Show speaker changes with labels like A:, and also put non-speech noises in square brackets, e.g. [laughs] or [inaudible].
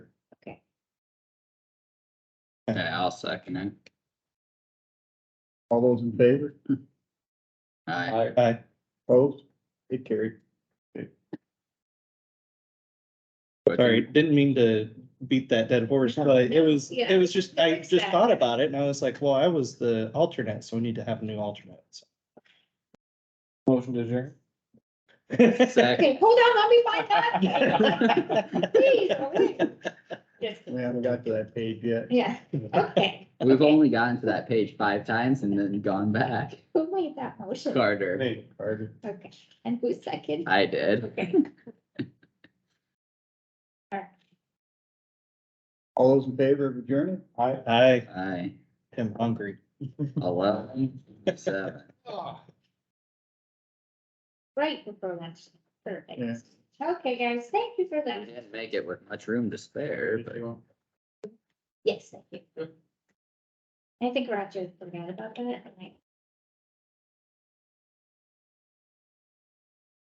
A: Yeah, I'll second it.
B: All those in favor?
A: Aye.
C: I,
B: Aye. Opposed? It carried.
A: But
B: Sorry, didn't mean to beat that dead horse, but it was,
D: Yeah.
B: it was just, I
D: Fix
B: just
D: that.
B: thought about it and I was like, well, I was the alternate, so we need to have a new alternate. so.
C: motion to adjourn.
B: [laughs]
A: Second.
D: Okay, hold on, let me find that.
A: [laughs]
D: Please, okay. Just-
B: We haven't got to that page yet.
D: Yeah, okay,
A: We've only gotten to that page five times and then gone back.
D: who made that motion?
A: Carter,
B: Hey, Carter.
D: Okay, and who second?
A: I did.
D: Okay,
B: All those in favor of adjourned? Aye. Aye,
A: Aye.
B: I'm hungry.
A: Eleven, seven.
D: right before lunch,
B: Yeah.
D: perfect. Okay, guys, thank you for
A: I
D: that.
A: didn't make it with much room to spare, but
D: Yes, thank you. I think Roger forgot about that, and I